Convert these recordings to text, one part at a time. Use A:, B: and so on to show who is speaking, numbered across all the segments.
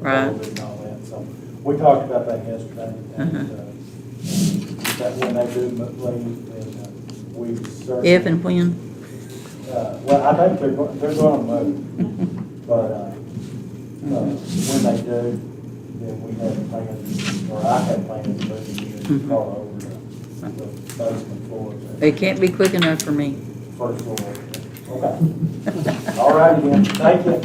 A: Right.
B: COVID and all that, so. We talked about that yesterday, and,
A: Uh-huh.
B: uh, that when they do leave, then uh, we certainly.
A: If and when?
B: Uh, Well, I think they're, go- they're gonna move, but, uh, uh, when they do, then we have plans, or I have plans to move the
A: Mm-hmm.
B: unit car over to the basement floor, the
A: It can't be quick enough for me.
B: first floor. Okay. All right, then, thank you.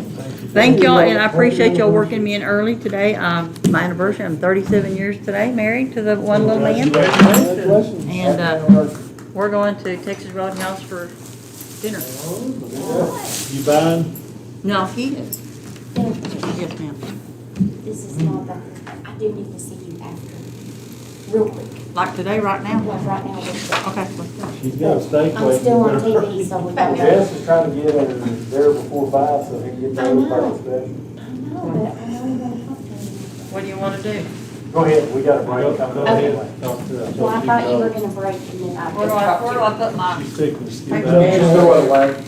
A: Thank y'all, and I appreciate y'all working me in early today. Um, my anniversary, I'm thirty-seven years today, married to the one little man.
B: Congratulations.
A: And, uh, We're going to Texas Roadhouse for dinner.
C: You buying?
A: No, he is.
D: This
A: Yes, ma'am.
D: is not that, I do need to see you after, real quick,
A: Like today, right now?
D: like right now, we're-
A: Okay, let's go.
C: She's got a steak
D: I'm
C: waiting.
D: still on
C: for her.
D: TV, so we
B: Well,
D: don't.
B: Jess is trying to get her there before five, so he can get
D: I
B: there
D: know.
B: first. thing.
D: I know, but I know you're gonna help me.
A: What do you wanna do?
B: Go ahead, we got a break coming
C: Go
B: up anyway.
C: ahead, talk to
D: Well, I thought you were
C: her.
D: gonna break and then I.
A: Where do I, where do I put my?
C: She's taking the skin
A: Thank you,
C: out.
A: Dad.
B: Just throw it away.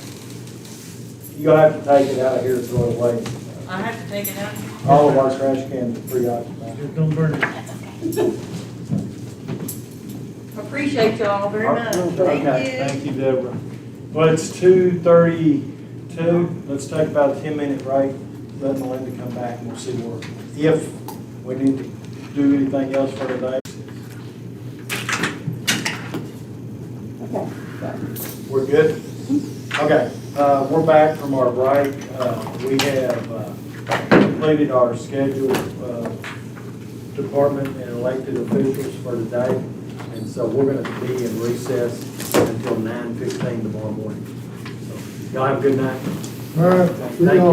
B: You're gonna have to take it out of here and throw it away.
A: I have to take it out.
B: All of our trash cans are preoccupied.
C: Just don't burn it.
D: That's okay.
A: Appreciate y'all very much.
B: Okay,
A: Thank you.
C: Thank you, Deborah.
B: Well, it's two thirty-two, let's take about a ten-minute break, let Melinda come back and we'll see where, if we need to do anything else for today. We're good? Okay, uh, we're back from our break, uh, we have, uh, completed our schedule, uh, department and elected officials for today. And so we're gonna be in recess until nine fifteen tomorrow morning. So Y'all have a good night.
E: All right,
B: Thank
E: we
B: you.
E: all-